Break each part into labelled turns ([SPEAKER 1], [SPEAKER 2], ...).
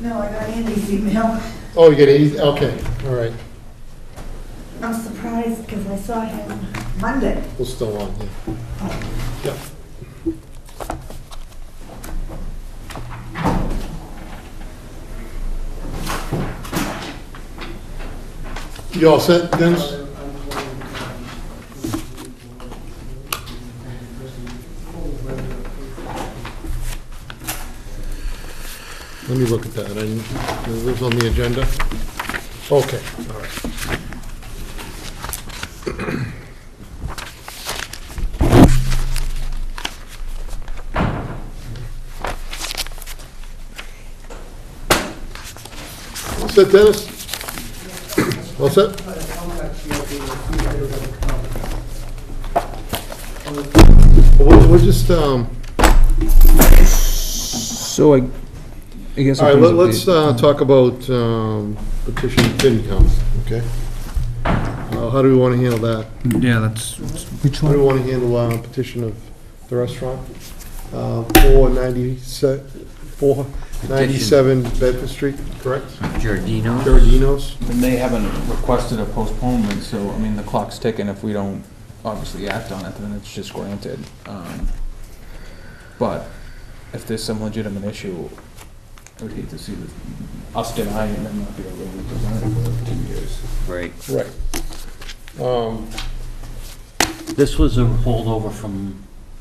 [SPEAKER 1] No, I got Andy's email.
[SPEAKER 2] Oh, you get it, okay, all right,
[SPEAKER 1] I'm surprised because I saw him Monday.
[SPEAKER 2] we're still on, yeah. Yep. You all set, Dennis? Let me look at that, I, it was on the agenda. Okay, all right. All set, Dennis? All set? We'll we'll just, um,
[SPEAKER 3] So I, I guess. in
[SPEAKER 2] all right,
[SPEAKER 3] terms
[SPEAKER 2] let-
[SPEAKER 3] of
[SPEAKER 2] let's
[SPEAKER 3] the-
[SPEAKER 2] uh, talk about um, petition FinCom, okay? Uh, How do we want to handle that?
[SPEAKER 3] Yeah, that's, which
[SPEAKER 2] How do we
[SPEAKER 3] one?
[SPEAKER 2] want to handle uh, petition of the restaurant? Uh, 497 497 Bedford Street, correct?
[SPEAKER 4] Giardino.
[SPEAKER 2] Giardino's?
[SPEAKER 5] And they haven't requested a postponement, so, I mean, the clock's ticking. If we don't obviously act on it, then it's just granted. Um, But if there's some legitimate issue, I would hate to see the- us deny it and then not be able to present it for two years.
[SPEAKER 4] Right.
[SPEAKER 2] Right. Um,
[SPEAKER 4] This was a holdover from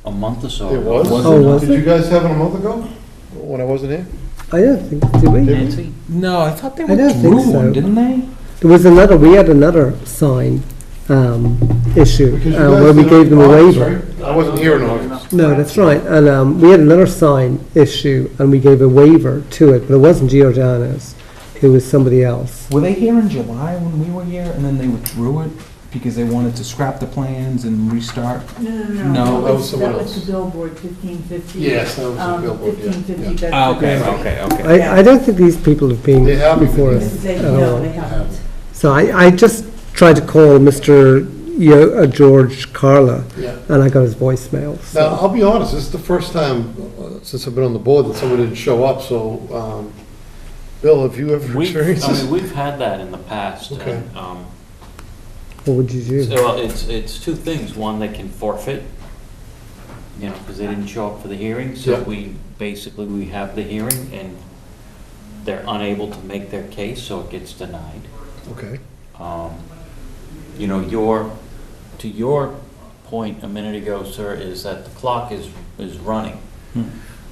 [SPEAKER 4] a month or so.
[SPEAKER 2] It was?
[SPEAKER 3] Oh, was
[SPEAKER 2] Did you guys have it a month ago, when I wasn't here?
[SPEAKER 6] I don't think, did we?
[SPEAKER 4] Nancy?
[SPEAKER 5] No, I thought they
[SPEAKER 6] I don't think
[SPEAKER 5] withdrew one,
[SPEAKER 6] so.
[SPEAKER 5] didn't they?
[SPEAKER 6] There was another, we had another sign um, issue
[SPEAKER 2] Because you
[SPEAKER 6] uh,
[SPEAKER 2] guys
[SPEAKER 6] where we
[SPEAKER 2] did it
[SPEAKER 6] gave them
[SPEAKER 2] in
[SPEAKER 6] a
[SPEAKER 2] August,
[SPEAKER 6] waiver.
[SPEAKER 2] right? I wasn't here in August.
[SPEAKER 6] No, that's right, and um, we had another sign issue and we gave a waiver to it, but it wasn't Giordano's, it was somebody else.
[SPEAKER 5] Were they here in July when we were here and then they withdrew it because they wanted to scrap the plans and restart?
[SPEAKER 1] No, no,
[SPEAKER 5] No,
[SPEAKER 1] no.
[SPEAKER 2] that was someone
[SPEAKER 1] That
[SPEAKER 2] else.
[SPEAKER 1] was the billboard, fifteen fifty. Um,
[SPEAKER 2] Yes, that was the billboard, yeah,
[SPEAKER 1] Fifteen fifty
[SPEAKER 2] yeah.
[SPEAKER 1] Bedford.
[SPEAKER 5] Ah, okay, okay.
[SPEAKER 6] I, I don't think these people have been
[SPEAKER 2] They haven't
[SPEAKER 6] before
[SPEAKER 2] been.
[SPEAKER 6] us
[SPEAKER 1] This is a,
[SPEAKER 6] at
[SPEAKER 1] no,
[SPEAKER 6] all.
[SPEAKER 1] they haven't.
[SPEAKER 6] So I, I just tried to call Mr. Yo- uh, George Carla
[SPEAKER 2] Yeah.
[SPEAKER 6] and I got his voicemail,
[SPEAKER 2] Now,
[SPEAKER 6] so.
[SPEAKER 2] I'll be honest, this is the first time uh, since I've been on the board that someone didn't show up, so, um, Bill, have you ever
[SPEAKER 4] We've,
[SPEAKER 2] experienced
[SPEAKER 4] I
[SPEAKER 2] this?
[SPEAKER 4] mean, we've had that in the past,
[SPEAKER 2] Okay.
[SPEAKER 4] and, um,
[SPEAKER 6] What would you do?
[SPEAKER 4] so, well, it's, it's two things. One, they can forfeit, you know, because they didn't show up for the hearing, so
[SPEAKER 2] Yeah.
[SPEAKER 4] we, basically, we have the hearing, and they're unable to make their case, so it gets denied.
[SPEAKER 2] Okay,
[SPEAKER 4] Um, You know, your, to your point a minute ago, sir, is that the clock is, is running.
[SPEAKER 5] Hmm.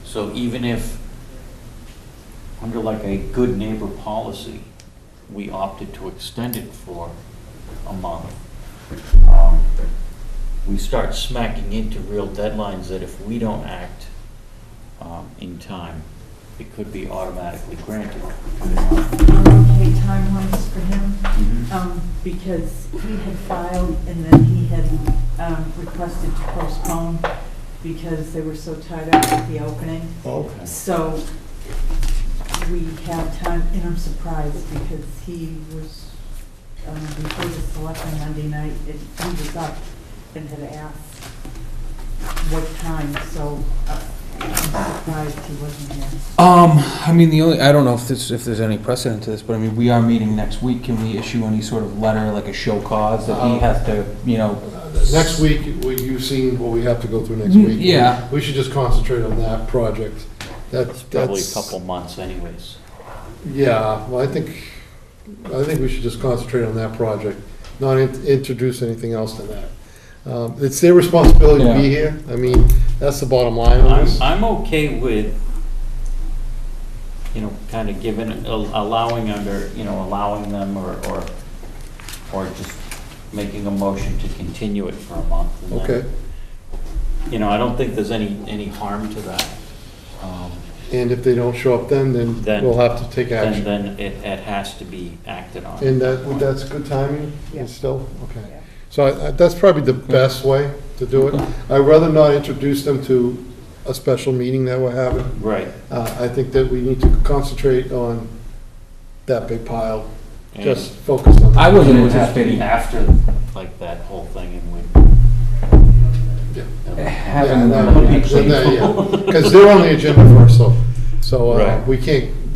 [SPEAKER 4] So even if, under like a good neighbor policy, we opted to extend it for a month, um, we start smacking into real deadlines that if we don't act um, in time, it could be automatically granted.
[SPEAKER 1] Okay, timelines for him, um, because he had filed and then he had, um, requested to postpone because they were so tied up with the opening.
[SPEAKER 4] Okay.
[SPEAKER 1] So we have time, and I'm surprised because he was, um, before the selection Monday night, and he was up and had asked what time, so uh, I'm surprised he wasn't here.
[SPEAKER 5] Um, I mean, the only, I don't know if this, if there's any precedent to this, but I mean, we are meeting next week. Can we issue any sort of letter, like a show cause that he has to, you know?
[SPEAKER 2] next week, we- you've seen what we have to go through next week.
[SPEAKER 5] Yeah.
[SPEAKER 2] We should just concentrate on that project. That's,
[SPEAKER 4] It's probably a
[SPEAKER 2] that's,
[SPEAKER 4] couple months anyways.
[SPEAKER 2] yeah, well, I think, I think we should just concentrate on that project, not in- introduce anything else to that. Um, It's their responsibility to be here, I mean, that's the bottom line on
[SPEAKER 4] I'm,
[SPEAKER 2] this.
[SPEAKER 4] I'm okay with, you know, kind of giving, allowing under, you know, allowing them or, or, or just making a motion to continue it for a month. and then-
[SPEAKER 2] Okay,
[SPEAKER 4] You know, I don't think there's any, any harm to that. Um,
[SPEAKER 2] and if they don't show up then, then
[SPEAKER 4] Then-
[SPEAKER 2] we'll have to take action.
[SPEAKER 4] And then it, it has to be acted on.
[SPEAKER 2] And that, that's good timing,
[SPEAKER 1] Yeah.
[SPEAKER 2] it's still, okay.
[SPEAKER 1] Yeah.
[SPEAKER 2] So I- I- that's probably the best way to do it. I'd rather not introduce them to a special meeting that we're having.
[SPEAKER 4] Right.
[SPEAKER 2] Uh, I think that we need to concentrate on that big pile,
[SPEAKER 4] and-
[SPEAKER 2] just focus on. that.
[SPEAKER 5] I wasn't
[SPEAKER 4] It would have to
[SPEAKER 5] anticipating
[SPEAKER 4] be after, like, that whole thing and
[SPEAKER 2] Yeah.
[SPEAKER 4] we.
[SPEAKER 5] having
[SPEAKER 2] Yeah,
[SPEAKER 5] them.
[SPEAKER 2] Because they're on the agenda for us, so, so uh,
[SPEAKER 4] Right.
[SPEAKER 2] we can't